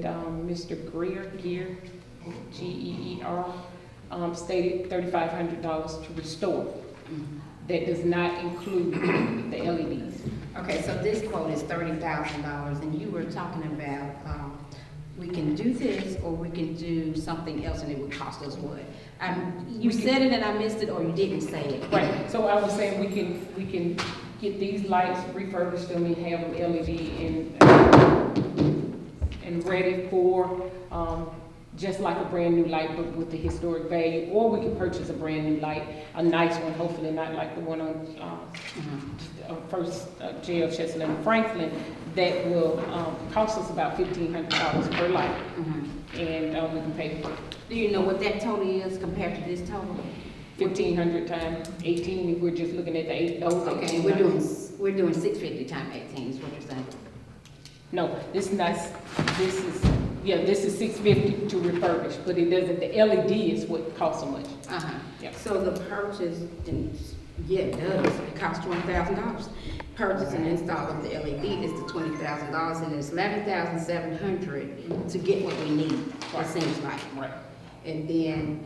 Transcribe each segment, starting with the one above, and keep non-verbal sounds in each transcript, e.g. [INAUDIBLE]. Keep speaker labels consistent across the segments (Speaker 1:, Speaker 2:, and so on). Speaker 1: Mr. um, Greer, Gear, G-E-E-R, E um, stated thirty-five hundred dollars to restore. That does not include the E LEDs.
Speaker 2: Okay, so this quote is thirty thousand dollars, and you were talking about, um, we can do this, or we can do something else, and it would cost us what? Um, you
Speaker 1: We can-
Speaker 2: said it and I missed it, or you didn't say it.
Speaker 1: Right, so I was saying we can, we can get these lights refurbished them and have them LED and, and ready for, um, just like a brand new light, but with the historic value. Or we can purchase a brand new light, a nice one, hopefully not like the one on, um,
Speaker 2: Mhm.
Speaker 1: uh, First uh, Jail, Chestnut and Franklin, that will um, cost us about fifteen hundred dollars per light,
Speaker 2: Mhm.
Speaker 1: and uh, we can pay
Speaker 2: Do you know what that total is compared to this total?
Speaker 1: fifteen hundred times eighteen, if we're just looking at the eight, those
Speaker 2: Okay,
Speaker 1: eighteen
Speaker 2: we're doing,
Speaker 1: hundred.
Speaker 2: we're doing six fifty times eighteen is what you're saying.
Speaker 1: No, this is not, this is, yeah, this is six fifty to refurbish, but it doesn't, the LED is what costs so much.
Speaker 2: Uh-huh.
Speaker 1: Yep.
Speaker 2: So the purchase, and, yeah, it does, it costs twenty thousand dollars. Purchase and install of the LED is the twenty thousand dollars, and it's eleven thousand seven hundred to get what we need, it
Speaker 1: Right.
Speaker 2: seems like.
Speaker 1: Right.
Speaker 2: And then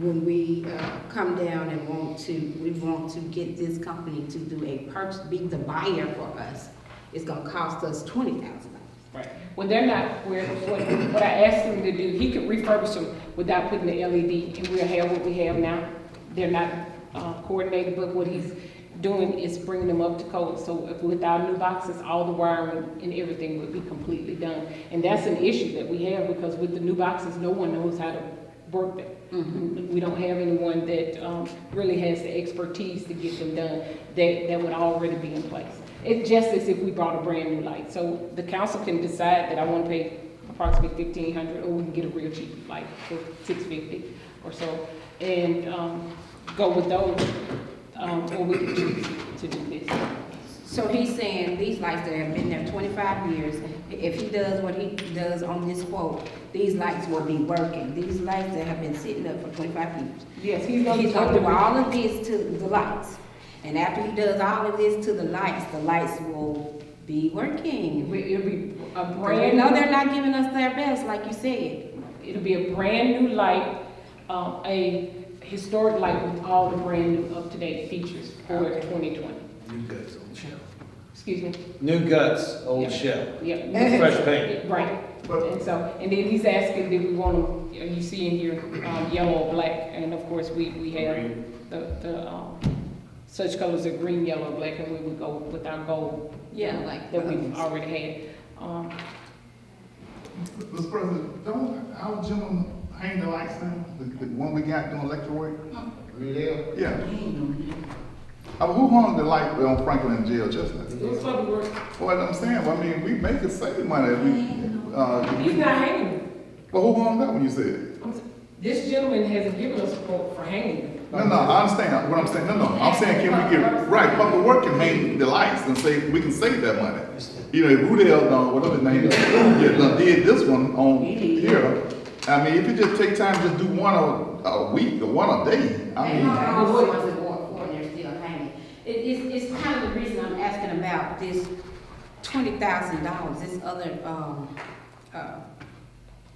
Speaker 2: when we, uh, come down and want to, we want to get this company to do a purchase, be the buyer for us, it's gonna cost us twenty thousand dollars.
Speaker 1: Right. When they're not, where, what, what I asked him to do, he could refurbish them without putting the LED, and we'll have what we have now. They're not, uh, coordinated, but what he's doing is bringing them up to code. So if, without new boxes, all the wiring and everything would be completely done. And that's an issue that we have, because with the new boxes, no one knows how to work them. We don't have anyone that, um, really has the expertise to get them done, that, that would already be in place. It's just as if we brought a brand new light. So the council can decide that I want to pay approximately fifteen hundred, or we can get a real cheap light for six fifty or so, and, um, go with those, um, or we can choose to do this.
Speaker 2: So he's saying these lights that have been there twenty-five years, if he does what he does on this quote, these lights will be working. These lights that have been sitting up for twenty-five years.
Speaker 1: Yes, he's gonna.
Speaker 2: He's gonna do all of this to the lights. And after he does all of this to the lights, the lights will be working.
Speaker 1: It'll be a
Speaker 2: Brand,
Speaker 1: brand.
Speaker 2: no, they're not giving us their best, like you said.
Speaker 1: It'll be a brand new light, um, a historic light with all the brand new up-to-date features for
Speaker 2: Okay.
Speaker 1: twenty twenty.
Speaker 3: New guts, old shell.
Speaker 1: Excuse me?
Speaker 3: New guts, old
Speaker 1: Yeah.
Speaker 3: shell.
Speaker 1: Yep.
Speaker 3: Fresh paint.
Speaker 1: Right, and so, and then he's asking, do we want to, you see in here, um, yellow or black, and of course, we, we have
Speaker 3: Green.
Speaker 1: the, the, um, such colors are green, yellow, black, and we would go with our gold.
Speaker 2: Yeah, like
Speaker 1: That
Speaker 2: the
Speaker 1: we've
Speaker 2: others.
Speaker 1: already had, um,
Speaker 4: Mr. President, don't our gentleman hang the lights down, the, the one we got doing electric work? Yeah. Uh, who hung the light on Franklin Jail Chestnut?
Speaker 1: it's for the work,
Speaker 4: Well, I'm saying, well, I mean, we make it save money, if we, uh,
Speaker 1: he's not hanging,
Speaker 4: well, who hung that one you said?
Speaker 1: I'm s- this gentleman hasn't given us a quote for hanging.
Speaker 4: No, no, I understand what I'm saying, no, no, I'm saying, can we get, right, public work can hang the lights and save, we can save that money. You know, if Rudell, done whatever his name is, yeah, done did this one on here, I mean, if you just take time, just do one a, a week or one a day, I mean.
Speaker 2: all the ones that were poor and they're still hanging. It, it's, it's kind of the reason I'm asking about this twenty thousand dollars, this other, um, uh,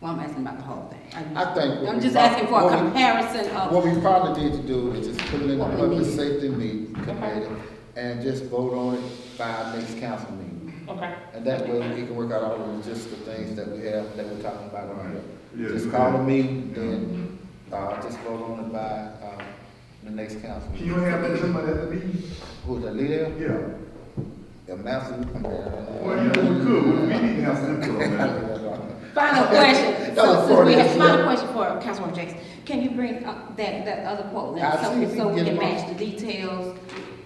Speaker 2: well, I'm asking about the whole thing.
Speaker 5: I think what
Speaker 2: I'm
Speaker 5: we
Speaker 2: just
Speaker 5: prob-
Speaker 2: asking for a
Speaker 5: what we-
Speaker 2: comparison of,
Speaker 5: What we probably need to do is just put it in the
Speaker 2: Uh, What we
Speaker 5: public
Speaker 2: need.
Speaker 5: safety meeting committee and just vote on it by our next council meeting.
Speaker 1: Okay.
Speaker 5: And that way we can work out all the logistical things that we have, that we're talking about on
Speaker 4: Yeah,
Speaker 5: here. Just
Speaker 4: do
Speaker 5: call
Speaker 4: that.
Speaker 5: a meeting, then, uh, just vote on it by, uh, the next council.
Speaker 4: Can you have that gentleman at the meeting?
Speaker 5: Who, the leader,
Speaker 4: Yeah.
Speaker 5: the master?
Speaker 4: Well, yeah, we could, we need to have some input on that.
Speaker 2: final question.
Speaker 5: [LAUGHS] That was
Speaker 2: So since we have,
Speaker 5: forty,
Speaker 2: final
Speaker 5: yeah.
Speaker 2: question for Councilwoman Jackson, can you bring up that, that other quote now?
Speaker 5: I'll see
Speaker 2: So,
Speaker 5: if we
Speaker 2: so
Speaker 5: can
Speaker 2: we
Speaker 5: get
Speaker 2: can
Speaker 5: them
Speaker 2: match the details.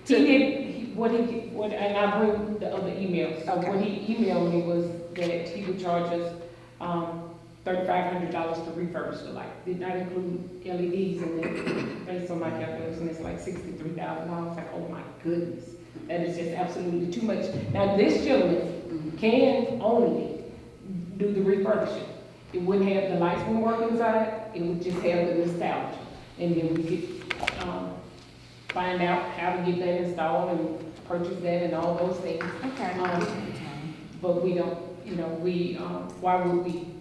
Speaker 1: He did, he- what he, what, and I bring the other emails, so what he emailed me was that he would charge us, um, thirty-five hundred dollars to refurbish the light. Did not include LEDs and then, based on my calculation, it's like sixty-three thousand dollars, like, oh my goodness. That is just absolutely too much. Now, this gentleman can only do the refurbishing. It wouldn't have, the lights wouldn't work inside, it would just have the nostalgia. And then we could, um, find out how to get that installed and purchase that and all those things.
Speaker 2: Okay.
Speaker 1: Um, But we don't, you know, we, um, why would we